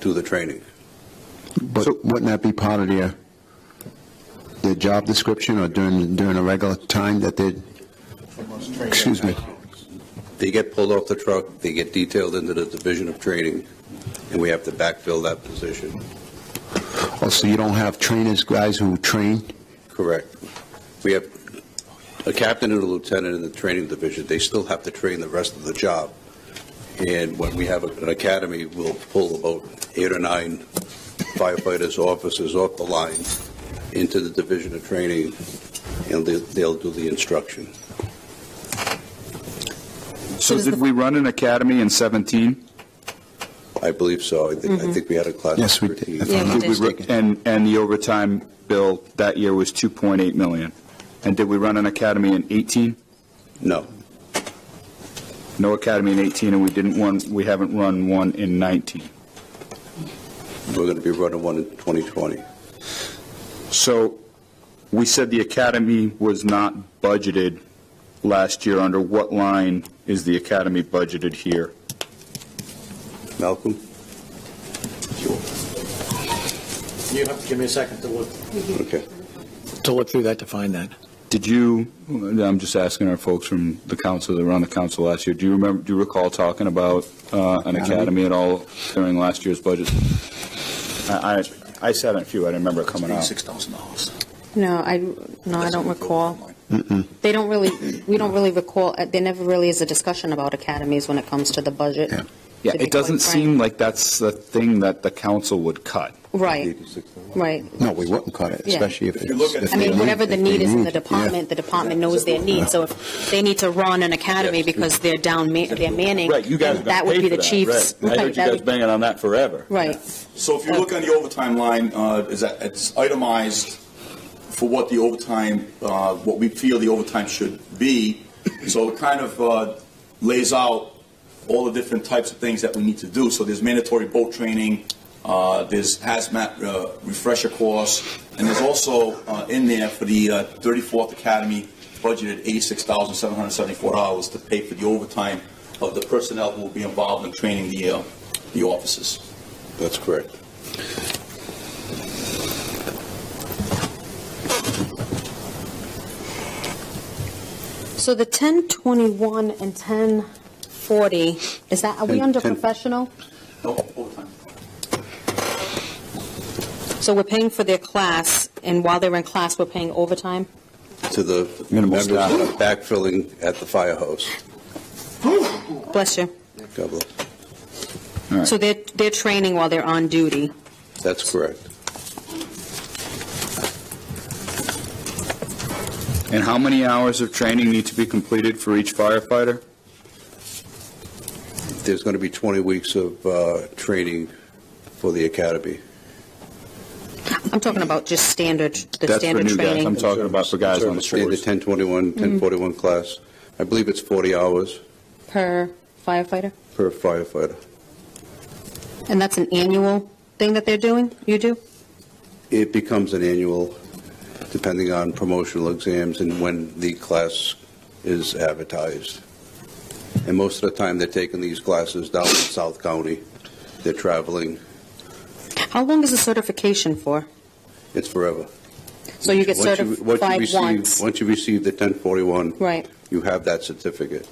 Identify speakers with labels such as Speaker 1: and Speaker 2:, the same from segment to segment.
Speaker 1: do the training.
Speaker 2: But wouldn't that be part of their, their job description or during, during a regular time that they, excuse me?
Speaker 1: They get pulled off the truck, they get detailed into the division of training, and we have to backfill that position.
Speaker 2: Oh, so you don't have trainers, guys who train?
Speaker 1: Correct. We have a captain and a lieutenant in the training division. They still have to train the rest of the job. And when we have an academy, we'll pull about eight or nine firefighters, officers off the line into the division of training, and they- they'll do the instruction.
Speaker 3: So
Speaker 4: does
Speaker 3: did
Speaker 4: the-
Speaker 3: we run an academy in 17?
Speaker 1: I believe so. I think, I think we had a class.
Speaker 2: Yes, we
Speaker 1: of
Speaker 2: did.
Speaker 1: 13.
Speaker 2: If I'm
Speaker 4: Mm-hmm. Yeah,
Speaker 2: not
Speaker 4: we did.
Speaker 3: We ru-
Speaker 2: mistaken.
Speaker 3: And, and the overtime bill that year was 2.8 million. And did we run an academy in 18?
Speaker 1: No,
Speaker 3: No academy in 18, and we didn't one, we haven't run one in 19.
Speaker 1: we're going to be running one in 2020.
Speaker 3: So we said the academy was not budgeted last year. Under what line is the academy budgeted here?
Speaker 1: Malcolm?
Speaker 5: You have to give me a second to look,
Speaker 1: Okay.
Speaker 5: to look through that to find that.
Speaker 3: Did you, I'm just asking our folks from the council that were on the council last year, do you remember, do you recall talking about uh, an academy at all during last year's budget? I, I- I sat on a few, I didn't remember it coming out.
Speaker 5: thousand dollars.
Speaker 4: No, I, no, I don't recall.
Speaker 2: Mm-mm.
Speaker 4: They don't really, we don't really recall, uh, there never really is a discussion about academies when it comes to the budget.
Speaker 2: Yeah.
Speaker 3: Yeah,
Speaker 4: to be
Speaker 3: it doesn't
Speaker 4: quite frank.
Speaker 3: seem like that's the thing that the council would cut.
Speaker 4: Right, right.
Speaker 2: No, we wouldn't cut it,
Speaker 4: Yeah.
Speaker 2: especially if it's. if
Speaker 4: I
Speaker 2: they
Speaker 4: mean, whatever the
Speaker 2: if
Speaker 4: need
Speaker 2: they
Speaker 4: is in the
Speaker 2: need it, yeah.
Speaker 4: department, the department knows their need. So if they need to run an academy because they're down, ma- they're manning, that would be the chief's.
Speaker 3: I
Speaker 4: right,
Speaker 3: heard you
Speaker 4: that
Speaker 3: guys
Speaker 4: would-
Speaker 3: banging on that forever.
Speaker 4: Right.
Speaker 6: So if you look on the overtime line, uh, is that, it's itemized for what the overtime, uh, what we feel the overtime should be. So it kind of uh, lays out all the different types of things that we need to do. So there's mandatory boat training, uh, there's hazmat uh, refresher course, and there's also uh, in there for the uh, 34th Academy budgeted $86,774 to pay for the overtime of the personnel who will be involved in training the, uh, the officers.
Speaker 1: That's correct.
Speaker 4: So the 1021 and 1040, is that, are we
Speaker 1: Ten-
Speaker 4: under
Speaker 1: ten-
Speaker 4: professional?
Speaker 6: No, overtime.
Speaker 4: So we're paying for their class, and while they're in class, we're paying overtime?
Speaker 1: To the
Speaker 3: Minimal
Speaker 1: members that are
Speaker 3: staff.
Speaker 1: backfilling at the firehouse.
Speaker 4: Bless you.
Speaker 1: God bless.
Speaker 4: So they're, they're training while they're on duty.
Speaker 1: That's correct.
Speaker 3: And how many hours of training need to be completed for each firefighter?
Speaker 1: There's going to be 20 weeks of uh, training for the academy.
Speaker 4: I'm talking about just standard, the
Speaker 3: That's for
Speaker 4: standard
Speaker 3: new guys, I'm
Speaker 4: training.
Speaker 3: talking about for guys on the
Speaker 1: Sort of
Speaker 3: street.
Speaker 1: Standard 1021, 1041 class. I believe it's 40 hours
Speaker 4: Per firefighter?
Speaker 1: per firefighter.
Speaker 4: And that's an annual thing that they're doing? You do?
Speaker 1: It becomes an annual, depending on promotional exams and when the class is advertised. And most of the time, they're taking these classes down in South County. They're traveling.
Speaker 4: How long is the certification for?
Speaker 1: It's forever.
Speaker 4: So you get
Speaker 1: Once you- once you
Speaker 4: certified
Speaker 1: receive-
Speaker 4: once?
Speaker 1: Once you receive the 1041,
Speaker 4: Right.
Speaker 1: you have that certificate.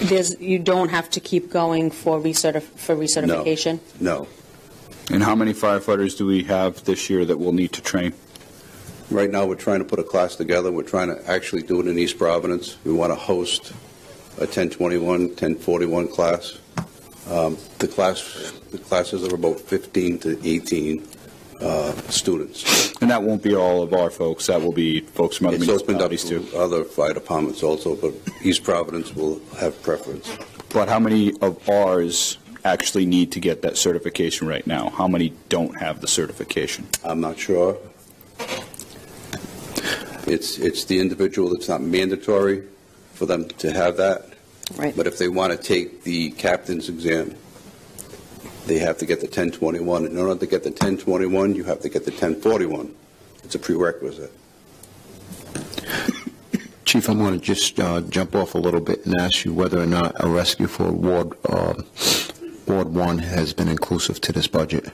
Speaker 4: There's, you don't have to keep going for recertif, for recertification?
Speaker 1: No.
Speaker 3: And how many firefighters do we have this year that will need to train?
Speaker 1: Right now, we're trying to put a class together. We're trying to actually do it in East Providence. We want to host a 1021, 1041 class. Um, The class, the classes are about 15 to 18 uh, students.
Speaker 3: And that won't be all of our folks, that will be folks from other
Speaker 1: It's opened up
Speaker 3: municipalities too.
Speaker 1: to other fire departments also, but East Providence will have preference.
Speaker 3: But how many of ours actually need to get that certification right now? How many don't have the certification?
Speaker 1: I'm not sure. It's, it's the individual, it's not mandatory for them to have that.
Speaker 4: Right.
Speaker 1: But if they want to take the captain's exam, they have to get the 1021. In order to get the 1021, you have to get the 1041. It's a prerequisite.
Speaker 2: Chief, I'm going to just uh, jump off a little bit and ask you whether or not a rescue for award um, Ward 1 has been inclusive to this budget.